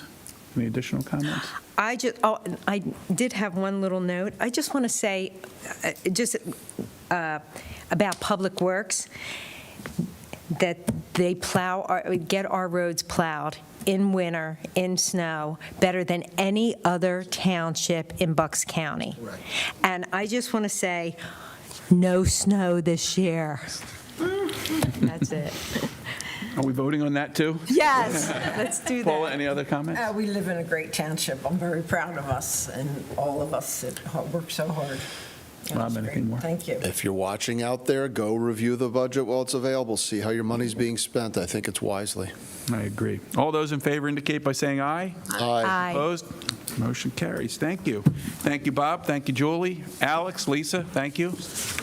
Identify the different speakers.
Speaker 1: Any additional comments?
Speaker 2: I just, oh, I did have one little note. I just want to say, uh, just uh, about Public Works, that they plow, our- get our roads plowed in winter, in snow, better than any other township in Bucks County. And I just want to say, no snow this year. That's it.
Speaker 1: Are we voting on that, too?
Speaker 2: Yes, let's do
Speaker 1: Paula,
Speaker 2: that. Oh.
Speaker 1: any other comments?
Speaker 3: Uh, We live in a great township. I'm very proud of us and all of us that ho- work so hard. And
Speaker 1: Rob,
Speaker 3: it's
Speaker 1: anything
Speaker 3: great.
Speaker 1: more?
Speaker 3: Thank you.
Speaker 4: If you're watching out there, go review the budget while it's available, see how your money's being spent. I think it's wisely.
Speaker 1: I agree. All those in favor indicate by saying aye.
Speaker 4: Aye.
Speaker 2: Aye.
Speaker 1: Opposed? Motion carries. Thank you. Thank you, Bob. Thank you, Julie. Alex, Lisa, thank you.